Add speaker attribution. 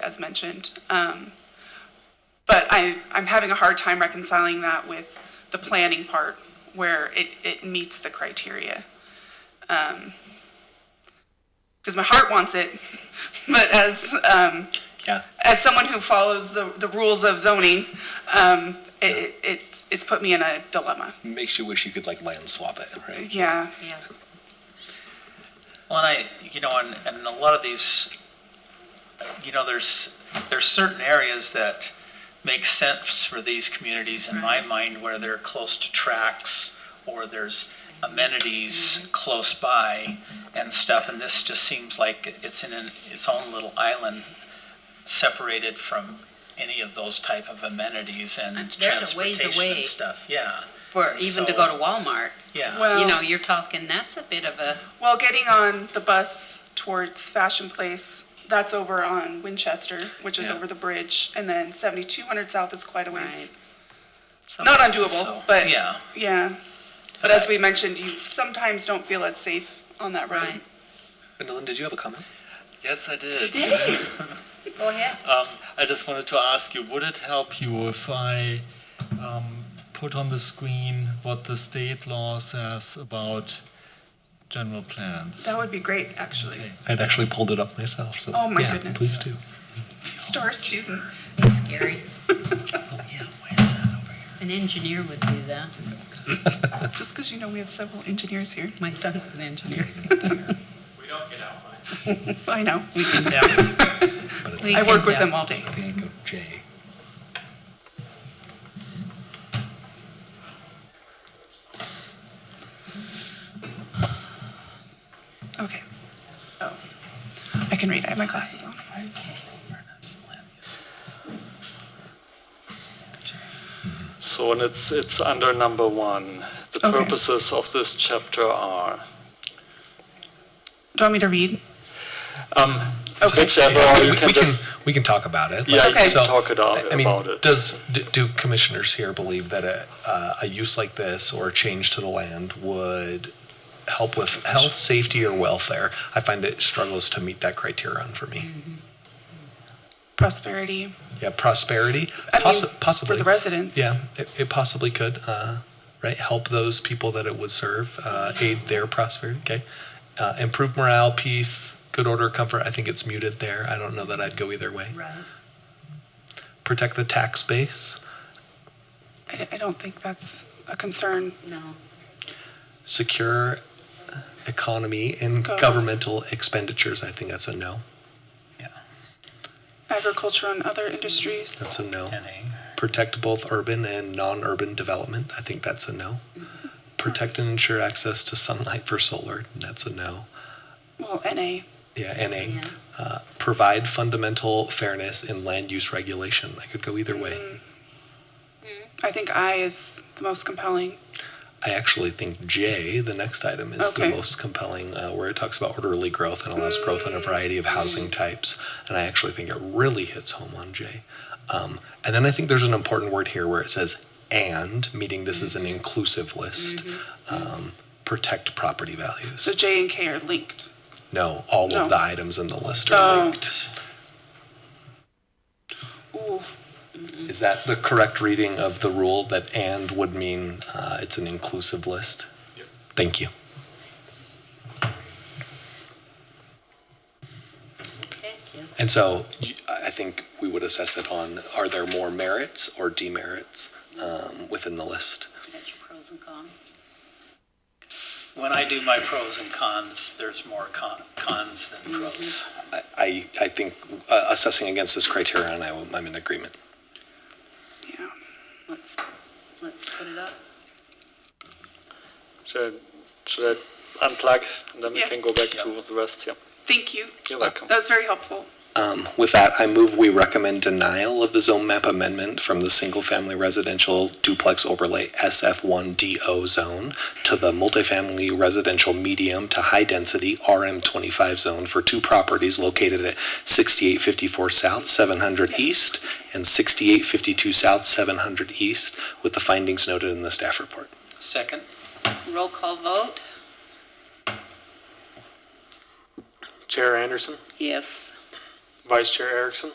Speaker 1: as mentioned. Um, But I, I'm having a hard time reconciling that with the planning part where it, it meets the criteria. Because my heart wants it, but as, um,
Speaker 2: Yeah,
Speaker 1: as someone who follows the, the rules of zoning, um, it, it- it's, it's put me in a dilemma.
Speaker 2: makes you wish you could like land swap it, right?
Speaker 1: Yeah,
Speaker 3: Yeah.
Speaker 4: Well, and I, you know, and, and a lot of these, you know, there's, there's certain areas that make sense for these communities in my mind where they're close to tracks or there's amenities
Speaker 3: Mm-hmm.
Speaker 4: close by and stuff, and this just seems like it's in an, its own little island separated from any of those type of amenities and
Speaker 3: And they're a ways
Speaker 4: transportation
Speaker 3: away.
Speaker 4: and stuff, yeah,
Speaker 3: For even to go to Walmart,
Speaker 4: yeah.
Speaker 1: Well-
Speaker 3: you know, you're talking, that's a bit of a,
Speaker 1: well, getting on the bus towards Fashion Place, that's over on Winchester, which is
Speaker 4: Yeah.
Speaker 1: over the bridge, and then 7200 South is quite a ways.
Speaker 3: Right. so-
Speaker 1: Not undoable,
Speaker 4: So,
Speaker 1: but
Speaker 4: Yeah,
Speaker 1: yeah. But as we mentioned, you sometimes don't feel as safe on that road.
Speaker 3: Right.
Speaker 2: Gwendolyn, did you have a comment?
Speaker 5: Yes, I did.
Speaker 3: Go ahead.
Speaker 5: Um, I just wanted to ask you, would it help you if I um, put on the screen what the state law says about general plans?
Speaker 1: That would be great, actually.
Speaker 2: I'd actually pulled it up myself, so.
Speaker 1: Oh, my
Speaker 2: yeah,
Speaker 1: goodness.
Speaker 2: Please do.
Speaker 1: Star student.
Speaker 3: Scary.
Speaker 4: Oh, yeah, why is that over here?
Speaker 3: An engineer would do that.
Speaker 1: Just because you know we have several engineers here.
Speaker 3: My son's an engineer.
Speaker 1: I know.
Speaker 4: Yeah.
Speaker 2: But it's
Speaker 3: We
Speaker 1: I work
Speaker 3: can
Speaker 1: with
Speaker 3: tell.
Speaker 1: them all day.
Speaker 2: I think I go J.
Speaker 1: Okay. Oh, I can read. I have my glasses on.
Speaker 5: So, and it's, it's under number one. The
Speaker 1: Okay.
Speaker 5: purposes of this chapter are,
Speaker 1: Do you want me to read?
Speaker 5: um,
Speaker 1: Okay.
Speaker 5: whichever, or you
Speaker 2: We-
Speaker 5: can
Speaker 2: we can-
Speaker 5: just,
Speaker 2: We can talk about it.
Speaker 5: yeah, you
Speaker 1: Okay.
Speaker 5: can
Speaker 1: So,
Speaker 5: talk it out
Speaker 2: I mean,
Speaker 5: about it.
Speaker 2: does, d- do commissioners here believe that a, uh, a use like this or a change to the land would help with health, safety, or welfare? I find it struggles to meet that criterion for me.
Speaker 1: Prosperity
Speaker 2: Yeah, prosperity,
Speaker 1: I mean,
Speaker 2: possi-
Speaker 1: for
Speaker 2: possibly.
Speaker 1: the residents.
Speaker 2: Yeah, it, it possibly could, uh, right? Help those people that it would serve, uh, aid their prosperity, okay? Uh, improve morale, peace, good order, comfort. I think it's muted there. I don't know that I'd go either way.
Speaker 3: Right.
Speaker 2: Protect the tax base.
Speaker 1: I, I don't think that's a concern.
Speaker 3: No.
Speaker 2: secure economy and
Speaker 1: Go.
Speaker 2: governmental expenditures. I think that's a no.
Speaker 1: Agriculture and other industries.
Speaker 2: That's a no.
Speaker 4: And A.
Speaker 2: Protect both urban and non-urban development. I think that's a no.
Speaker 1: Mm-hmm.
Speaker 2: Protect and ensure access to sunlight for solar. That's a no.
Speaker 1: Well, NA.
Speaker 2: Yeah, NA.
Speaker 3: Yeah.
Speaker 2: Uh, provide fundamental fairness in land use regulation. I could go either way.
Speaker 1: Mm-hmm. I think I is the most compelling.
Speaker 2: I actually think J, the next item, is
Speaker 1: Okay.
Speaker 2: the most compelling, uh, where it talks about orderly growth and allows growth
Speaker 1: Mm-hmm.
Speaker 2: in a variety of housing types. And I actually think it really hits home on J. Um, and then I think there's an important word here where it says and, meaning this is an
Speaker 1: Mm-hmm.
Speaker 2: inclusive list. Um, protect property values.
Speaker 1: So J and K are linked.
Speaker 2: No, all
Speaker 1: No.
Speaker 2: of the items in the list are
Speaker 1: Oh.
Speaker 2: linked.
Speaker 1: Ooh,
Speaker 2: Is that the correct reading of the rule that and would mean uh, it's an inclusive list? Yes. Thank you.
Speaker 3: Okay. yeah.
Speaker 2: And so you- I I think we would assess it on, are there more merits or demerits um, within the list?
Speaker 3: That's your pros and cons.
Speaker 4: When I do my pros and cons, there's more con- cons than pros.
Speaker 2: I- I, I think uh, assessing against this criterion, I w- I'm in agreement.
Speaker 1: yeah.
Speaker 3: Let's, let's put it up.
Speaker 6: Should, should I unplug and then we
Speaker 1: Yeah.
Speaker 6: can go back to the rest here?
Speaker 1: Thank you.
Speaker 6: You're welcome.
Speaker 1: That was very helpful.
Speaker 2: Um, With that, I move we recommend denial of the zone map amendment from the single-family residential duplex overlay SF1DO zone to the multifamily residential medium to high-density RM25 zone for two properties located at 6854 South 700 East and 6852 South 700 East, with the findings noted in the staff report.
Speaker 4: Second?
Speaker 3: Roll call vote?
Speaker 6: Chair Anderson,
Speaker 3: Yes.
Speaker 6: Vice Chair Erickson,